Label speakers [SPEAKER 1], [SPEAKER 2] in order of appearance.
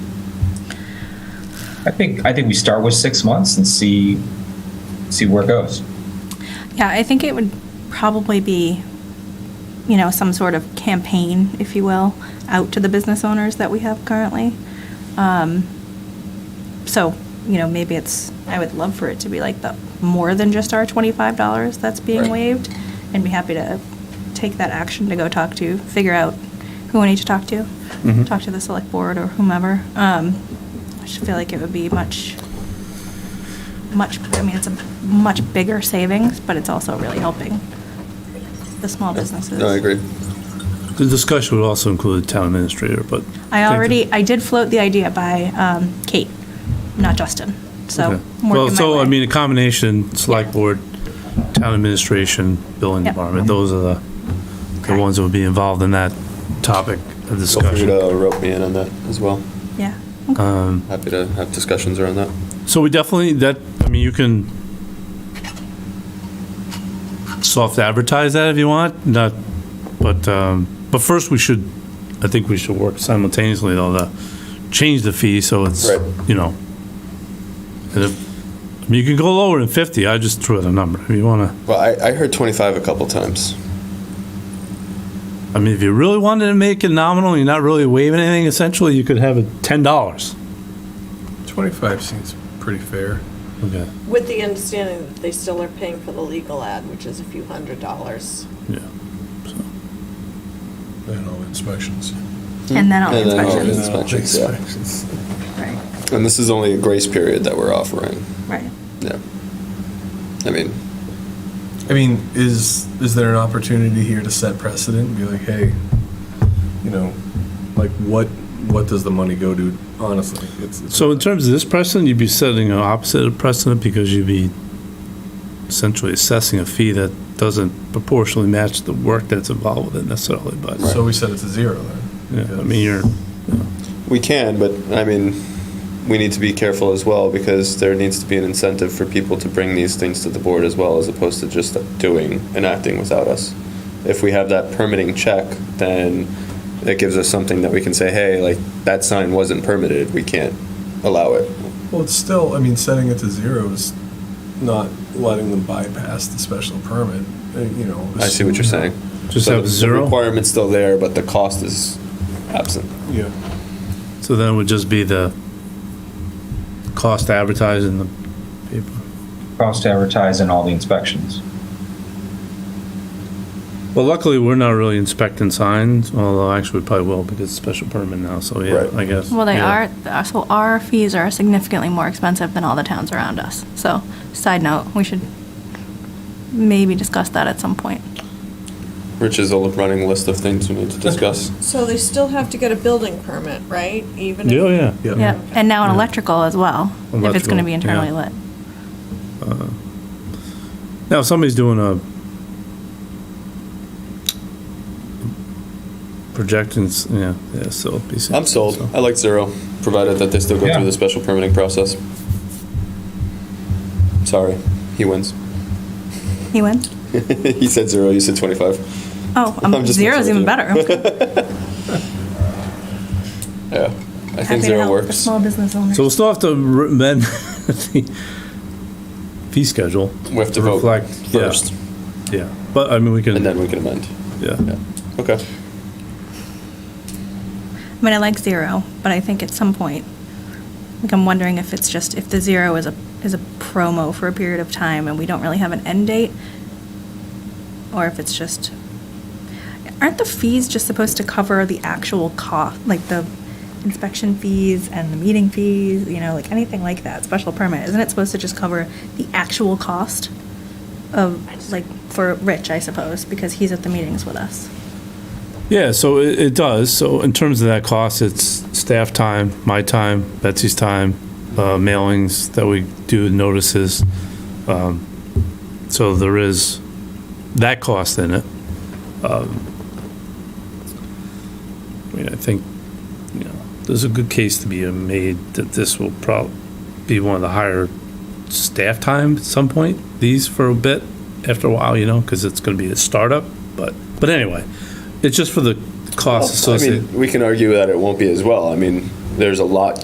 [SPEAKER 1] I think, I think we start with six months and see, see where it goes.
[SPEAKER 2] Yeah, I think it would probably be, you know, some sort of campaign, if you will, out to the business owners that we have currently. Um, So, you know, maybe it's, I would love for it to be like the, more than just our twenty-five dollars that's being
[SPEAKER 1] Right.
[SPEAKER 2] waived. And be happy to take that action to go talk to, figure out who I need to talk to.
[SPEAKER 3] Mhm.
[SPEAKER 2] Talk to the select board or whomever. Um, I just feel like it would be much much, I mean, it's a much bigger savings, but it's also really helping the small businesses.
[SPEAKER 4] No, I agree.
[SPEAKER 3] The discussion would also include the town administrator, but.
[SPEAKER 2] I already, I did float the idea by um, Kate, not Justin, so.
[SPEAKER 3] Okay.
[SPEAKER 2] I'm
[SPEAKER 3] Well,
[SPEAKER 2] working my
[SPEAKER 3] so, I
[SPEAKER 2] way.
[SPEAKER 3] mean, a combination, select board, town administration, building
[SPEAKER 2] Yep.
[SPEAKER 3] department, those are the, the
[SPEAKER 2] Okay.
[SPEAKER 3] ones that would be involved in that topic of
[SPEAKER 4] Feel free
[SPEAKER 3] discussion.
[SPEAKER 4] to rope me in on that as well.
[SPEAKER 2] Yeah,
[SPEAKER 4] Happy to have discussions around that.
[SPEAKER 3] So we definitely, that, I mean, you can soft advertise that if you want, not, but, um, but first we should, I think we should work simultaneously though, to change the fee so it's,
[SPEAKER 4] Right.
[SPEAKER 3] you know. and if- I mean, you can go lower than 50, I just threw out a number. If you wanna,
[SPEAKER 4] Well, I, I heard 25 a couple times.
[SPEAKER 3] I mean, if you really wanted to make it nominal, you're not really waiving anything, essentially, you could have it $10.
[SPEAKER 5] 25 seems pretty fair.
[SPEAKER 3] Okay.
[SPEAKER 6] With the understanding that they still are paying for the legal ad, which is a few hundred dollars.
[SPEAKER 3] Yeah.
[SPEAKER 5] Then all inspections.
[SPEAKER 2] and then all the
[SPEAKER 4] And Hmm. then all
[SPEAKER 2] inspections,
[SPEAKER 4] the Inspections, yeah.
[SPEAKER 5] Inspections.
[SPEAKER 2] right,
[SPEAKER 4] And this is only a grace period that we're offering.
[SPEAKER 2] right.
[SPEAKER 4] Yeah. I mean,
[SPEAKER 5] I mean, is, is there an opportunity here to set precedent and be like, hey, you know, like what, what does the money go to, honestly? It's- it's-
[SPEAKER 3] So in terms of this precedent, you'd be setting an opposite of precedent because you'd be essentially assessing a fee that doesn't proportionally match the work that's involved with it necessarily, but,
[SPEAKER 5] So we set it to zero then?
[SPEAKER 3] yeah, I mean, you're,
[SPEAKER 4] we can, but I mean, we need to be careful as well because there needs to be an incentive for people to bring these things to the board as well as opposed to just doing and acting without us. If we have that permitting check, then it gives us something that we can say, hey, like that sign wasn't permitted. We can't allow it.
[SPEAKER 5] Well, it's still, I mean, setting it to zero is not letting them bypass the special permit, uh, you know.
[SPEAKER 4] I see what you're saying.
[SPEAKER 3] just
[SPEAKER 4] So
[SPEAKER 3] have
[SPEAKER 4] the- The
[SPEAKER 3] zero.
[SPEAKER 4] requirement's still there, but the cost is absent.
[SPEAKER 5] Yeah.
[SPEAKER 3] So then it would just be the cost to advertise in the paper.
[SPEAKER 1] Cost to advertise and all the inspections.
[SPEAKER 3] Well, luckily, we're not really inspecting signs, although actually we probably will because it's special permit now, so yeah,
[SPEAKER 4] Right.
[SPEAKER 3] I guess.
[SPEAKER 2] Well, they
[SPEAKER 3] yeah.
[SPEAKER 2] are, uh, so our fees are significantly more expensive than all the towns around us. So, side note, we should maybe discuss that at some point.
[SPEAKER 4] Rich is a running list of things we need to discuss.
[SPEAKER 6] So they still have to get a building permit, right? Even if-
[SPEAKER 3] Yeah, Oh, yeah.
[SPEAKER 2] Yeah, and now an electrical as well, if it's gonna
[SPEAKER 3] Electrical,
[SPEAKER 2] be
[SPEAKER 3] yeah.
[SPEAKER 2] internally lit.
[SPEAKER 3] Now, if somebody's doing a projections, yeah, yeah, so. it'd be safe.
[SPEAKER 4] I'm sold.
[SPEAKER 3] So-
[SPEAKER 4] I like zero, provided that they still go
[SPEAKER 1] Yeah.
[SPEAKER 4] through the special permitting process. Sorry, he wins.
[SPEAKER 2] He wins?
[SPEAKER 4] he said zero. You said twenty-five.
[SPEAKER 2] Oh,
[SPEAKER 4] I'm
[SPEAKER 2] um,
[SPEAKER 4] just
[SPEAKER 2] zero's
[SPEAKER 4] messing
[SPEAKER 2] even
[SPEAKER 4] with you.
[SPEAKER 2] better. I'm
[SPEAKER 4] Yeah, I
[SPEAKER 2] happy
[SPEAKER 4] think
[SPEAKER 2] to
[SPEAKER 4] zero
[SPEAKER 2] help the
[SPEAKER 4] works.
[SPEAKER 2] Small business owners.
[SPEAKER 3] So we'll still have to re- amend the fee schedule.
[SPEAKER 4] We have to vote
[SPEAKER 3] reflect- yeah,
[SPEAKER 4] first,
[SPEAKER 3] Yeah, but I mean, we
[SPEAKER 4] and
[SPEAKER 3] can,
[SPEAKER 4] then we can amend.
[SPEAKER 3] yeah.
[SPEAKER 4] Okay.
[SPEAKER 2] I mean, I like zero, but I think at some point, like, I'm wondering if it's just, if the zero is a, is a promo for a period of time and we don't really have an end date, or if it's just, aren't the fees just supposed to cover the actual cost, like the inspection fees and the meeting fees, you know, like anything like that, special permit, isn't it supposed to just cover the actual cost of, like, for Rich, I suppose, because he's at the meetings with us?
[SPEAKER 3] Yeah, so it, it does. So in terms of that cost, it's staff time, my time, Betsy's time, uh, mailings that we do, notices. Um, So there is that cost in it. Um, I mean, I think, you know, there's a good case to be made that this will probably be one of the higher staff time at some point, these for a bit, after a while, you know, because it's going to be a startup, but, but anyway. It's just for the costs
[SPEAKER 4] Well, I
[SPEAKER 3] associated.
[SPEAKER 4] mean, we can argue that it won't be as well. I mean, there's a lot